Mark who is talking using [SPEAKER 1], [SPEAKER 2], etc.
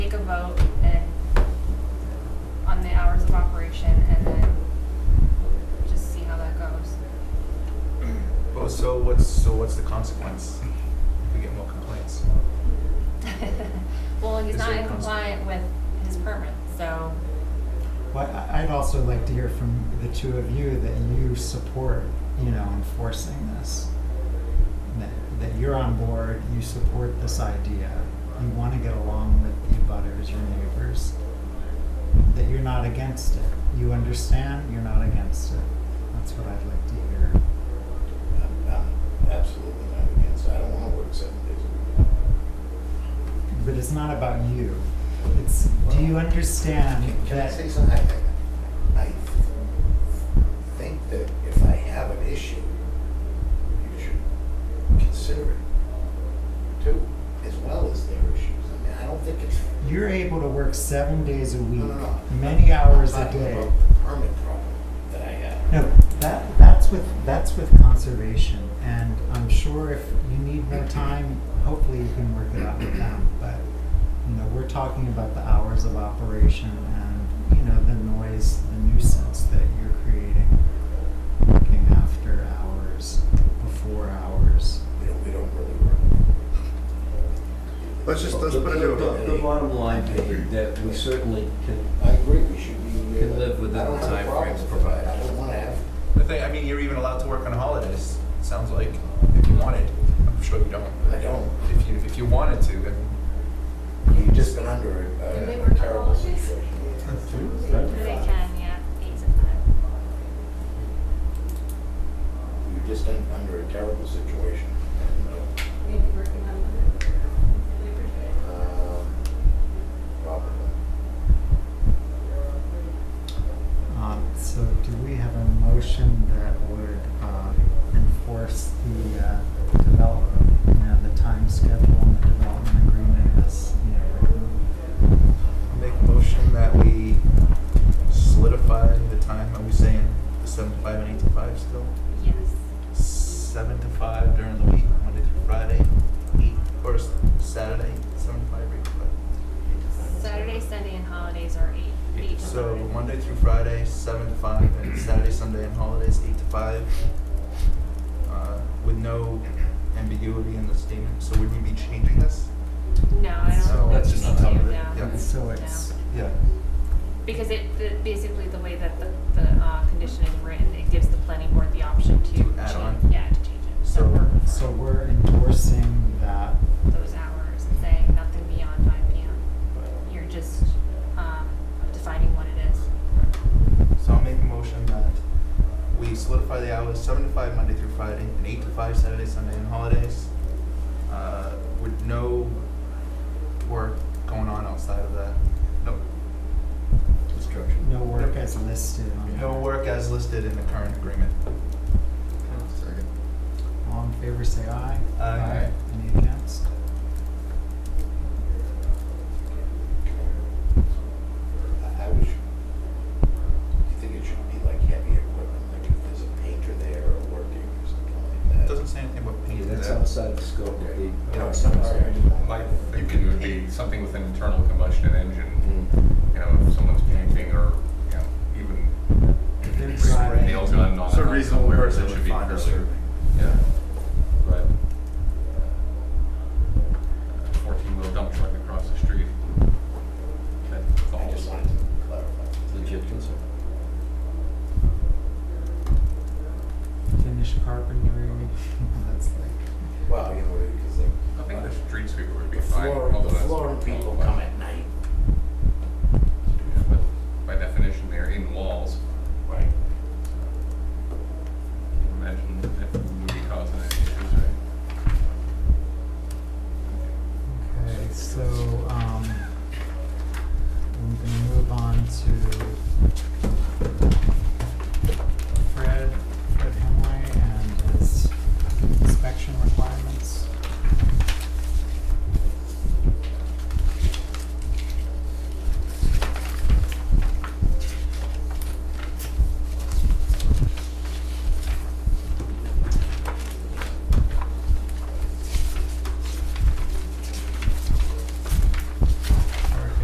[SPEAKER 1] complaints, so what's the consequence? If we get more complaints.
[SPEAKER 2] Well, he's
[SPEAKER 1] Is
[SPEAKER 2] not
[SPEAKER 1] there
[SPEAKER 2] in
[SPEAKER 1] a cons-
[SPEAKER 2] compliant with his permit, so,
[SPEAKER 3] Well, I- I'd also like to hear from the two of you that you support, you know, enforcing this. That, that you're on board, you support this idea, you want to get along with the butters, your neighbors, that you're not against it. You understand, you're not against it. That's what I'd like to hear.
[SPEAKER 4] I'm, I'm absolutely not against, I don't wanna work seven days a week.
[SPEAKER 3] But it's not about you. It's, do you understand
[SPEAKER 4] Can- Can I
[SPEAKER 3] that?
[SPEAKER 4] say something? I- I I think that if I have an issue, you should consider it too, as well as their issues. I mean, I don't think it's.
[SPEAKER 3] You're able to work seven days a week,
[SPEAKER 4] No, no, no.
[SPEAKER 3] many hours
[SPEAKER 4] I'm
[SPEAKER 3] a
[SPEAKER 4] talking
[SPEAKER 3] day.
[SPEAKER 4] about Permit problem that I have.
[SPEAKER 3] No, that, that's with, that's with conservation, and I'm sure if you need more time, hopefully you can work it out with them, but, you know, we're talking about the hours of operation and, you know, the noise, the nuisance that you're creating, working after hours, before hours.
[SPEAKER 4] We don't, we don't really work.
[SPEAKER 5] Let's just, let's put it
[SPEAKER 6] The-
[SPEAKER 5] to
[SPEAKER 6] the-
[SPEAKER 5] a
[SPEAKER 6] The bottom line being that we certainly can,
[SPEAKER 4] I agree, we should be.
[SPEAKER 6] Can live within
[SPEAKER 4] I don't
[SPEAKER 6] the
[SPEAKER 4] have a
[SPEAKER 6] time
[SPEAKER 4] problem
[SPEAKER 6] frames
[SPEAKER 4] with it.
[SPEAKER 6] provided.
[SPEAKER 4] I don't wanna have,
[SPEAKER 1] The thing, I mean, you're even allowed to work on holidays, it sounds like, if you wanted. I'm sure you don't.
[SPEAKER 4] I don't.
[SPEAKER 1] If you, if you wanted to, then
[SPEAKER 4] You've just been under
[SPEAKER 2] Do they
[SPEAKER 4] a-
[SPEAKER 2] work
[SPEAKER 4] a
[SPEAKER 2] on
[SPEAKER 4] terrible
[SPEAKER 2] holidays?
[SPEAKER 4] situation.
[SPEAKER 2] they can, yeah, eight to five.
[SPEAKER 4] You've just been under a terrible situation. And, uh,
[SPEAKER 7] maybe working on Labor Day.
[SPEAKER 4] Um, Probably.
[SPEAKER 3] Um, so do we have a motion that would, uh, enforce the, uh, development, you know, the time schedule and the development agreement as, you know, written?
[SPEAKER 1] I'll make a motion that we solidify the time, are we saying the seven to five and eight to five still?
[SPEAKER 2] Yes,
[SPEAKER 1] Seven to five during the week, Monday through Friday, eight, or s- Saturday, seven to five, eight to five.
[SPEAKER 2] Saturday, Sunday, and holidays are eight, eight to five.
[SPEAKER 1] So Monday through Friday, seven to five, and Saturday, Sunday, and holidays, eight to five. Uh, with no ambiguity in the statement, so would we be changing this?
[SPEAKER 2] No, I don't.
[SPEAKER 1] So
[SPEAKER 2] think
[SPEAKER 1] that's
[SPEAKER 2] we
[SPEAKER 1] just
[SPEAKER 2] need
[SPEAKER 1] on top
[SPEAKER 2] to,
[SPEAKER 1] of it,
[SPEAKER 2] no.
[SPEAKER 1] yeah.
[SPEAKER 3] So it's,
[SPEAKER 1] Yeah.
[SPEAKER 2] Because it, the- basically, the way that the, the uh, condition is written, it gives the planning board the option to.
[SPEAKER 1] To add
[SPEAKER 2] change-
[SPEAKER 1] on.
[SPEAKER 2] Yeah, to change it.
[SPEAKER 1] So-
[SPEAKER 2] we're-
[SPEAKER 3] so we're endorsing that,
[SPEAKER 2] Those hours and saying nothing beyond five PM. You're just um, defining what it is.
[SPEAKER 1] So I'll make a motion that we solidify the hours, seven to five Monday through Friday, and eight to five Saturday, Sunday, and holidays, uh, with no work going on outside of that. No,
[SPEAKER 4] Destruction.
[SPEAKER 3] no work as listed on
[SPEAKER 1] no
[SPEAKER 3] that.
[SPEAKER 1] work as listed in the current agreement.
[SPEAKER 5] Second.
[SPEAKER 3] All in favor, say aye.
[SPEAKER 1] Aye.
[SPEAKER 3] Any against?
[SPEAKER 4] I I wish, do you think it should be like heavy equipment, like if there's a painter there or working or something like that?
[SPEAKER 1] It doesn't say anything about
[SPEAKER 6] yeah,
[SPEAKER 1] painting
[SPEAKER 6] that's
[SPEAKER 1] that.
[SPEAKER 6] outside the scope of the.
[SPEAKER 4] You know, it's not hard.
[SPEAKER 8] Like, thinking it would be something with an internal combustion engine, you know, if someone's painting or, you know, even
[SPEAKER 3] If they're
[SPEAKER 8] spray
[SPEAKER 3] driving,
[SPEAKER 8] nails on, on.
[SPEAKER 1] So a reasonable
[SPEAKER 8] somewhere,
[SPEAKER 1] person
[SPEAKER 8] that should
[SPEAKER 1] would
[SPEAKER 8] be
[SPEAKER 1] find a
[SPEAKER 8] fairly-
[SPEAKER 1] certain
[SPEAKER 8] uh,
[SPEAKER 3] um,